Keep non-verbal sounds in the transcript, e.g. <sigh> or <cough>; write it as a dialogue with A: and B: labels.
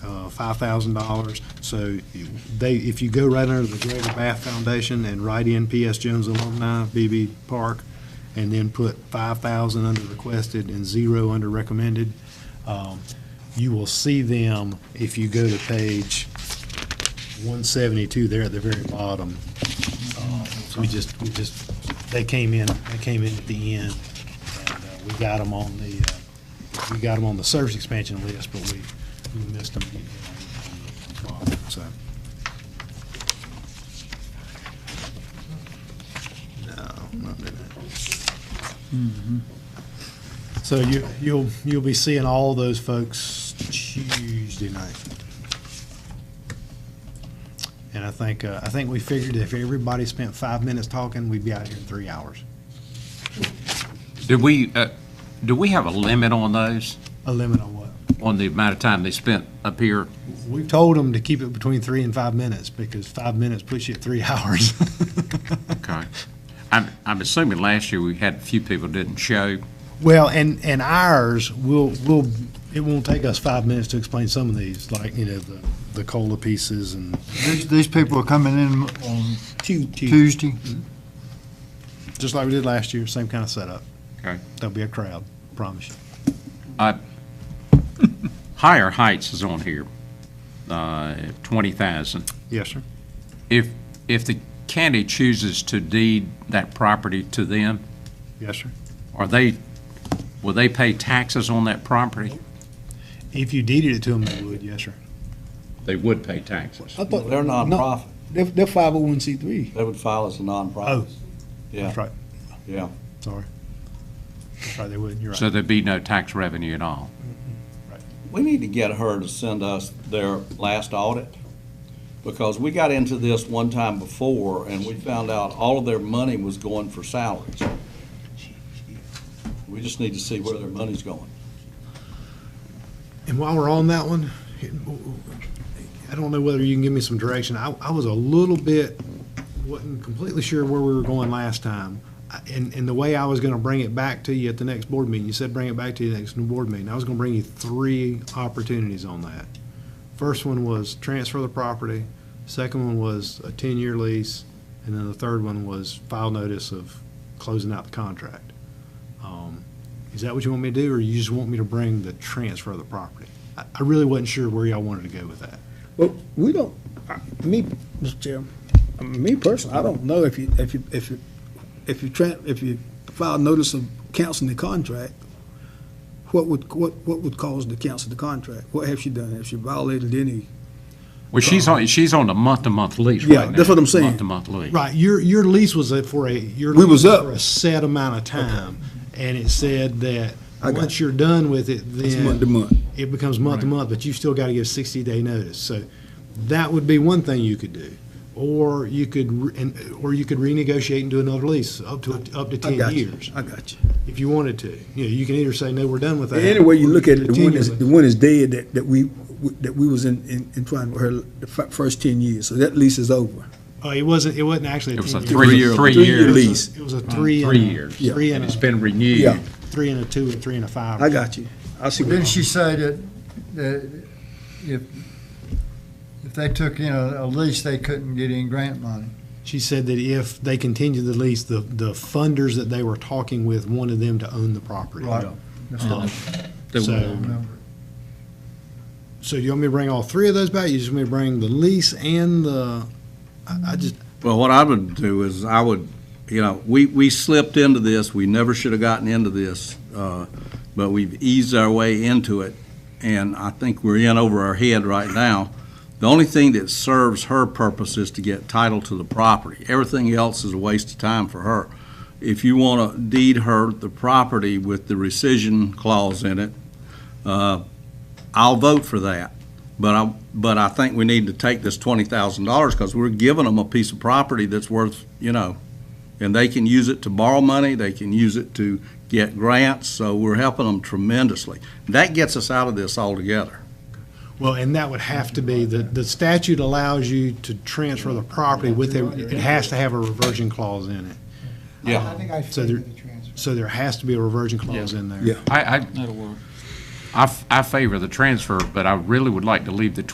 A: uh, five thousand dollars. So they, if you go right under the Greater Bath Foundation and write in P.S. Jones Alumni, BB Park, and then put five thousand under requested and zero under recommended, um, you will see them if you go to page one seventy-two there at the very bottom. Uh, so We just, we just, they came in, they came in at the end, and uh, we got them on the, uh, we got them on the service expansion list, but we, we missed them. getting on the bottom, So, no, not doing that. Mm-hmm. So you, you'll, you'll be seeing all those folks Tuesday night. And I think, uh, I think we figured if everybody spent five minutes talking, we'd be out here in three hours.
B: Did we, uh, do we have a limit on those,
A: A limit on what?
B: on the amount of time they spent up here?
A: We've told them to keep it between three and five minutes because five minutes puts you at three <laughs> hours.
B: Okay. I'm, I'm assuming last year we had a few people didn't show.
A: Well, and, and ours will, will, it won't take us five minutes to explain some of these, like, you know, the, the cola pieces and.
C: These, these people are coming in on Tuesday.
A: Just like we did last year, same kind of setup.
B: Okay.
A: There'll be a crowd, promise you.
B: Uh, Higher Heights is on here, uh, 20,000.
A: Yes, sir.
B: If, if the county chooses to deed that property to them,
A: Yes, sir.
B: are they, will they pay taxes on that property?
A: If you deeded it to them, they would, yes, sir.
B: They would pay taxes.
D: I thought they're nonprofit.
A: They're, they're five oh one C three.
D: They would file as a
A: Oh.
D: nonprofit. Yeah,
A: That's right,
D: yeah.
A: sorry. That's right, they would, you're
B: So
A: right.
B: there'd be no tax revenue at all.
D: We need to get her to send us their last audit because we got into this one time before and we found out all of their money was going for salaries. We just need to see where their money's going.
A: And while we're on that one, I don't know whether you can give me some direction. I, I was a little bit, wasn't completely sure where we were going last time. I- And, and the way I was gonna bring it back to you at the next board meeting, you said bring it back to you next new board meeting. I was gonna bring you three opportunities on that. First one was transfer the property, second one was a ten-year lease, and then the third one was file notice of closing out the contract. Um, Is that what you want me to do, or you just want me to bring the transfer of the property? I, I really wasn't sure where y'all wanted to go with that.
E: Well, we don't, I- me, Mr. Chairman, I mean, me personally, I don't know if you, if you, if you, if you, tran- if you file notice of canceling the contract, what would, what, what would cause the cancel the contract? What has she done? Has she violated any?
B: Well, she's on, she's on a month-to-month lease right
E: Yeah,
B: now.
E: that's what I'm saying.
B: Month-to-month lease.
A: Right, your, your lease was a- for a, your.
E: We was
A: lease
E: up.
A: For a set amount of time, and it said that,
E: I got
A: once you're done with it, then.
E: It's month to month.
A: It becomes month to month, but you've still got to give sixty day notice, so that would be one thing you could do. Or you could, re- and, or you could renegotiate and do another lease, up to, up to
E: I
A: ten
E: got you.
A: years,
E: I got you.
A: if you wanted to. You know, you can either say, no, we're done with that.
E: Any way you
A: or
E: look at it, the one
A: continue
E: is,
A: with
E: the one is dead that, that we, that we was in, in, in trying with her the fi- first ten years, so that lease is over.
A: Oh, it wasn't, it wasn't actually a
B: It was a
A: 10-year.
B: three,
E: Three-year
B: three-year
E: lease.
B: lease.
A: It was a- It was a three.
B: Three
A: and a-
B: years.
E: Yeah.
A: Three
B: And
A: and
B: it's
A: a,
B: been renewed.
E: Yeah.
A: three and a two and three and a five.
E: I got you. I see what
C: Didn't she
E: you
C: say that, that if, if they took in a a lease, they couldn't get any grant money?
A: She said that if they continued the lease, the, the funders that they were talking with wanted them to own the property.
C: Right. That's
B: Uh-huh.
A: Uh-huh.
C: what I
A: So,
C: remember.
A: so you want me to bring all three of those back? You just want me to bring the lease and the, I, I just,
F: Well, what I would do is I would, you know, we, we slipped into this, we never should have gotten into this, uh, but we've eased our way into it, and I think we're in over our head right now. The only thing that serves her purpose is to get title to the property. Everything else is a waste of time for her. If you want to deed her the property with the rescission clause in it, uh, I'll vote for that. But I, but I think we need to take this twenty thousand dollars, because we're giving them a piece of property that's worth, you know, and they can use it to borrow money, they can use it to get grants, so we're helping them tremendously. That gets us out of this altogether.
A: well, and that would have to be, the, the statute allows you to transfer the property with, a- it has to have a reversion clause in it.
D: Yeah.
G: think I
A: So there- So there has to be a reversion clause in there.
E: Yeah.
B: I, I. That'll work. I, f- I favor the transfer, but I really would like to leave the